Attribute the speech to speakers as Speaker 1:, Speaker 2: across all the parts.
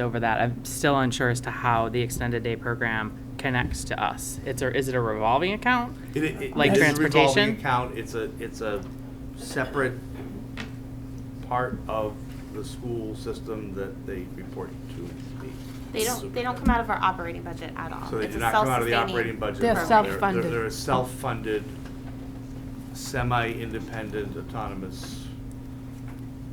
Speaker 1: over that. I'm still unsure as to how the extended day program connects to us. It's or is it a revolving account?
Speaker 2: It- it- it-
Speaker 1: Like
Speaker 2: this is a
Speaker 1: transportation?
Speaker 2: revolving Account, it's a, it's a separate part of the school system that they report to the.
Speaker 3: They don't, they don't come out of our operating budget at all.
Speaker 2: So they
Speaker 3: It's
Speaker 2: do
Speaker 3: a
Speaker 2: not come out of the
Speaker 3: self-sustaining
Speaker 2: operating budget.
Speaker 4: They're
Speaker 3: program.
Speaker 2: they're-
Speaker 4: self-funded.
Speaker 2: They're a self-funded, semi-independent, autonomous.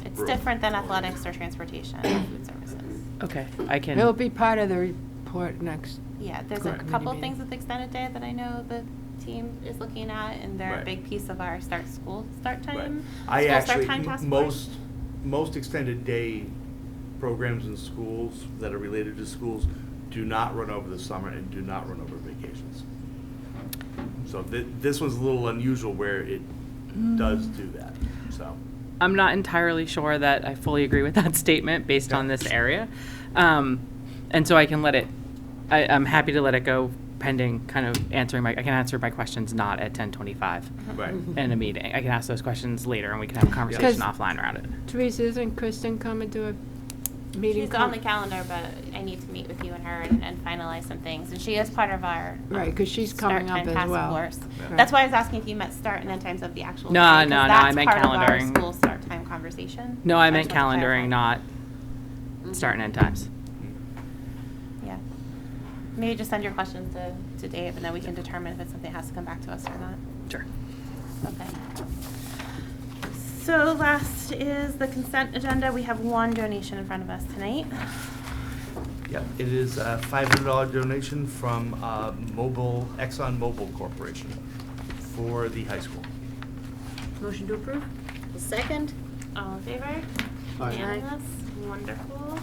Speaker 3: It's
Speaker 2: Right.
Speaker 3: different than athletics or transportation or food services.
Speaker 1: Okay, I can.
Speaker 4: It'll be part of the report next.
Speaker 3: Yeah, there's a
Speaker 4: Correct.
Speaker 3: couple
Speaker 4: Community
Speaker 3: things
Speaker 4: meeting.
Speaker 3: with extended day that I know the team is looking at, and they're
Speaker 2: Right.
Speaker 3: a big piece of our start school start
Speaker 2: Right.
Speaker 3: time.
Speaker 2: I
Speaker 3: school start
Speaker 2: actually,
Speaker 3: time
Speaker 2: m-
Speaker 3: task force.
Speaker 2: most, most extended day programs in schools that are related to schools do not run over the summer and do not run over vacations. So thi- this one's a little unusual where it
Speaker 3: Mm.
Speaker 2: does do that, so.
Speaker 1: I'm not entirely sure that I fully agree with that statement based on this area. Um, and so I can let it, I, I'm happy to let it go pending kind of answering my, I can answer my questions not at ten twenty-five
Speaker 3: Mm-hmm.
Speaker 2: Right.
Speaker 4: Mm-hmm.
Speaker 1: in a meeting. I can ask those questions later and we can have a conversation
Speaker 4: Because-
Speaker 1: offline around it.
Speaker 4: Teresa, isn't Kristen coming to a meeting?
Speaker 3: She's on the
Speaker 4: call-
Speaker 3: calendar, but I need to meet with you and her and and finalize some things, and she is part of our.
Speaker 4: Right, 'cause she's
Speaker 3: start
Speaker 4: coming up
Speaker 3: time
Speaker 4: as
Speaker 3: task
Speaker 4: well.
Speaker 3: force.
Speaker 4: Yeah.
Speaker 3: That's why I was asking if you meant start and then times of the actual.
Speaker 1: No,
Speaker 3: time, 'cause
Speaker 1: no, no, I
Speaker 3: that's
Speaker 1: meant
Speaker 3: part of our
Speaker 1: calendaring.
Speaker 3: School start time conversation.
Speaker 1: No, I
Speaker 3: So
Speaker 1: meant
Speaker 3: just wanted to
Speaker 1: calendaring,
Speaker 3: clarify.
Speaker 1: not start and end times.
Speaker 3: Yeah. Maybe just send your questions to, to Dave, and then we can determine if it's something that has to come back to us or not.
Speaker 1: Sure.
Speaker 3: Okay. So last is the consent agenda. We have one donation in front of us tonight.
Speaker 2: Yep, it is a five hundred dollar donation from uh, Mobil, Exxon Mobil Corporation for the high school.
Speaker 5: Motion to approve? Second?
Speaker 3: All in favor? Unanimous? Wonderful.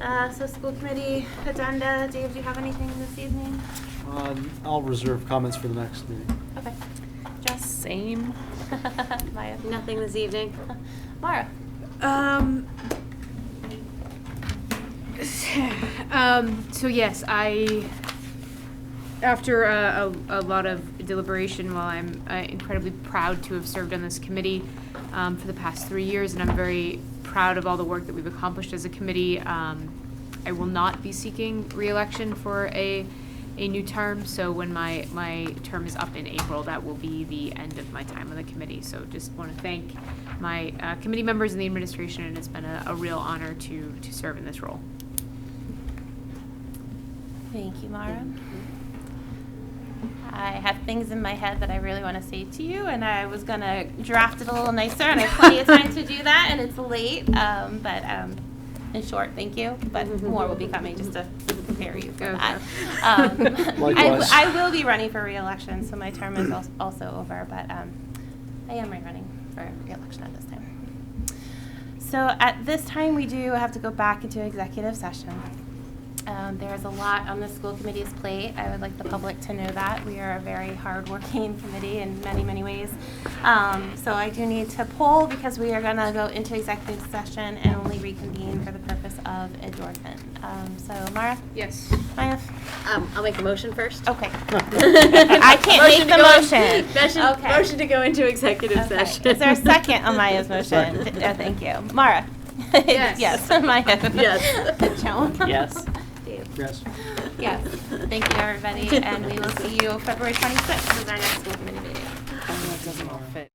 Speaker 3: Uh, so school committee agenda, Dave, do you have anything this evening?
Speaker 6: Um, I'll reserve comments for the next meeting.
Speaker 3: Okay. Just
Speaker 1: Same.
Speaker 3: Maya?
Speaker 5: Nothing this evening.
Speaker 3: Mara?
Speaker 7: Um, um, so yes, I, after a, a, a lot of deliberation, while I'm uh, incredibly proud to have served on this committee um, for the past three years, and I'm very proud of all the work that we've accomplished as a committee, um, I will not be seeking reelection for a, a new term, so when my, my term is up in April, that will be the end of my time on the committee. So just want to thank my uh, committee members and the administration, and it's been a, a real honor to, to serve in this role.
Speaker 3: Thank you, Mara. I have things in my head that I really want to say to you, and I was gonna draft it a little nicer, and I have plenty of time to do that, and it's late. Um, but um, in short, thank you. But more will be coming just to prepare you for
Speaker 7: Okay.
Speaker 3: that. Um, I, w-
Speaker 6: Likewise.
Speaker 3: I will be running for reelection, so my term is al- also over. But um, I am rerunning for reelection at this time. So at this time, we do have to go back into executive session. Um, There is a lot on the school committee's plate. I would like the public to know that. We are a very hardworking committee in many, many ways. Um, So I do need to poll because we are going to go into executive session and only reconvene for the purpose of adjournment. Um, So Mara?
Speaker 7: Yes.
Speaker 3: Maya?
Speaker 5: Um, I'll make a motion first.
Speaker 3: Okay. I can't
Speaker 5: Motion
Speaker 3: make
Speaker 5: to
Speaker 3: the
Speaker 5: go-
Speaker 3: motion.
Speaker 5: Motion,
Speaker 3: Okay.
Speaker 5: motion to go into executive
Speaker 3: Okay.
Speaker 5: session.
Speaker 3: Is there a second on Maya's motion?
Speaker 6: Second.
Speaker 3: Th- uh, Thank you. Mara?
Speaker 7: Yes.
Speaker 3: Yes, Maya?
Speaker 5: Yes.
Speaker 3: Joan?
Speaker 1: Yes.
Speaker 3: Dave?
Speaker 6: Yes.
Speaker 3: Yes, thank you, everybody, and we will see you February 26th is our next school committee meeting.
Speaker 7: I know it doesn't all fit.